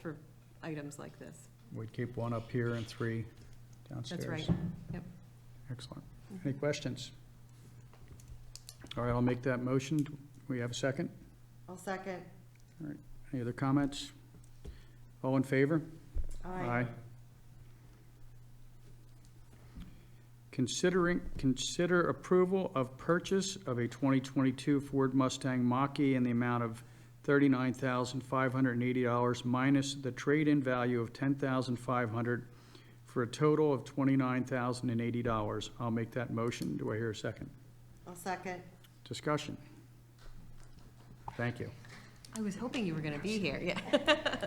for items like this. We'd keep one up here and three downstairs. That's right. Mm-hmm. Yep. Excellent. Any questions? All right, I'll make that motion. Do We have a second? I'll second. Any other comments? All in favor? Considering, consider approval of purchase of a 2022 Ford Mustang Mach-E in the amount of $39,580 minus the trade-in value of $10,500 for a total of $29,080. I'll make that motion. Do I hear a second? I'll second. Discussion? Thank you. I was hoping you were going to be here, yeah.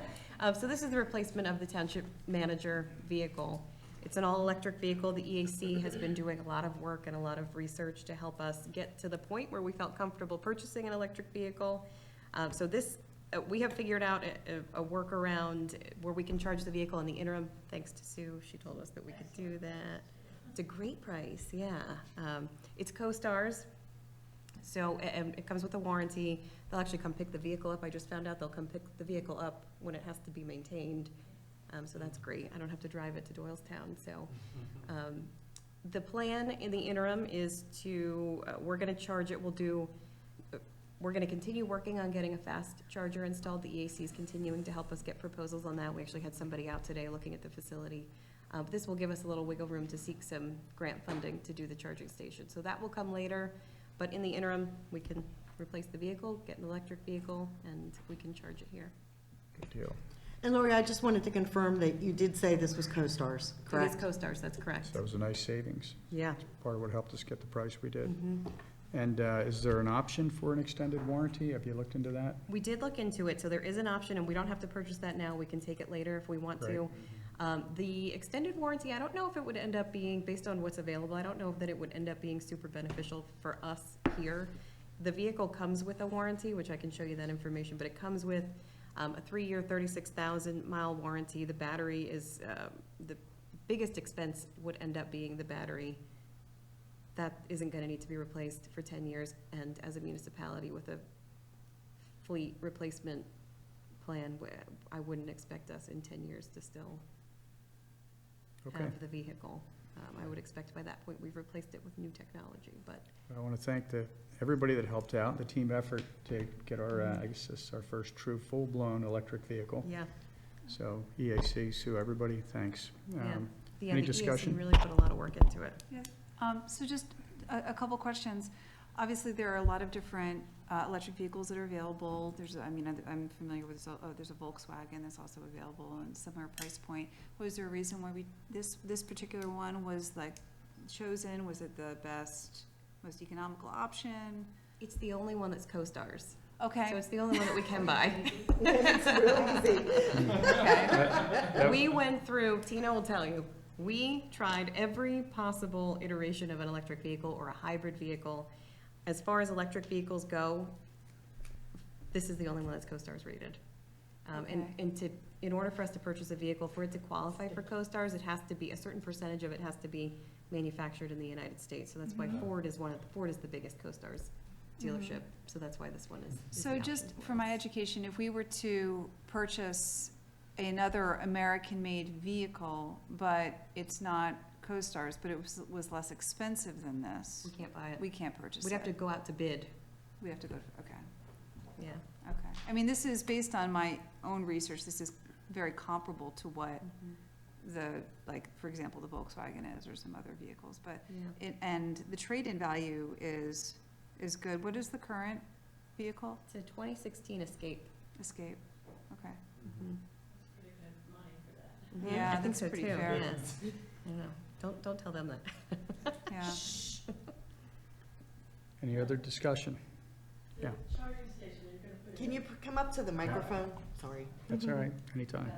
Um, So this is the replacement of the township manager vehicle. It's an all-electric vehicle. The EAC has been doing a lot of work and a lot of research to help us get to the point where we felt comfortable purchasing an electric vehicle. Um, So this, uh, we have figured out a- a a workaround where we can charge the vehicle in the interim, thanks to Sue. She told us that we could do that. It's a great price, yeah. Um, It's CoStarz, so, a- and it comes with a warranty. They'll actually come pick the vehicle up. I just found out they'll come pick the vehicle up when it has to be maintained. Um, so that's great. I don't have to drive it to Doylestown, so. Um, the plan in the interim is to, uh, we're gonna charge it, we'll do, uh, we're gonna continue working on getting a fast charger installed. The EAC is continuing to help us get proposals on that. We actually had somebody out today looking at the facility. Uh, but this will give us a little wiggle room to seek some grant funding to do the charging station. So that will come later. But in the interim, we can replace the vehicle, get an electric vehicle, and we can charge it here. Good deal. And Lori, I just wanted to confirm that you did say this was CoStarz, It is correct? CoStarz, that's correct. That was a nice savings. Yeah. Part of what helped us get the price we did. Mhm. And uh, is there an option for an extended warranty? Have you looked into that? We did look into it, so there is an option, and we don't have to purchase that now, we can take it later if we want to. Right. Um, the extended warranty, I don't know if it would end up being, based on what's available, I don't know that it would end up being super beneficial for us here. The vehicle comes with a warranty, which I can show you that information, but it comes with, um, a three-year, thirty-six thousand mile warranty. The battery is, um, the biggest expense would end up being the battery. That isn't gonna need to be replaced for ten years, and as a municipality with a fleet replacement plan, wh- I wouldn't expect us in ten years to still Okay. have the vehicle. Um, I would expect by that point, we've replaced it with new technology, but I want to thank the, everybody that helped out, the team effort to get our, uh, I guess this is our first true full-blown electric vehicle. yeah, So EAC, Sue, everybody, thanks. Yeah. Um, yeah, Any the EAC discussion? really put a lot of work into it. Um, So just a, a couple questions. Obviously, there are a lot of different uh, electric vehicles that are available. There's, I mean, I'm- I'm familiar with, oh, there's a Volkswagen that's also available and similar price point. Was there a reason why we, this, this particular one was like chosen? Was it the best, most economical option? It's the only one that's co-stars, so Okay, it's the only one that we can buy. Yep. We went through, Tina will tell you, we tried every possible iteration of an electric vehicle or a hybrid vehicle. As far as electric vehicles go, this is the only one that's CoStar's rated. Um, and, Okay. and to, in order for us to purchase a vehicle, for it to qualify for CoStar's, it has to be, a certain percentage of it has to be manufactured in the United States. So that's why Mhm. Ford is one of, Ford is the biggest CoStar's dealership, so that's why this one is. is the so option just for us. my education, if we were to purchase another American-made vehicle, but it's not CoStarz, but it was, was less expensive than this, We can't buy it. we can't purchase it. We'd have to go out to bid, We have to go, to- okay, yeah. okay. I mean, this is based on my own research, this is very comparable to what the, like, for example, the Volkswagen is or some other vehicles, but, Yeah. it- and the trade-in value is, is good. What is the current vehicle? It's a 2016 Escape. Escape, okay. Mhm. Yeah, I think that's so pretty too, fair. yes. I know, don't, don't tell them that. Yeah, Any other discussion? Yeah, Can you pr- come up to the microphone? Sorry. that's all right, anytime.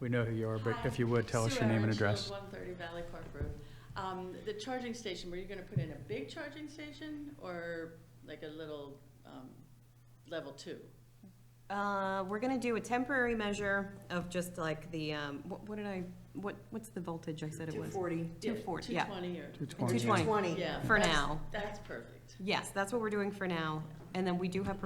We know who you are, but if you would, tell us your name and address. One thirty Valley Park Road. Um, the charging station, were you gonna put in a big charging station or like a little, um, level two? Uh, we're gonna do a temporary measure of just like the, um, what, what did I, what, what's the voltage I said it was? 240. Two forty, yeah. Two twenty or? 220. 220. Twenty. Yeah. For that's- now. That's perfect. Yes, that's what we're doing for now, and then we do have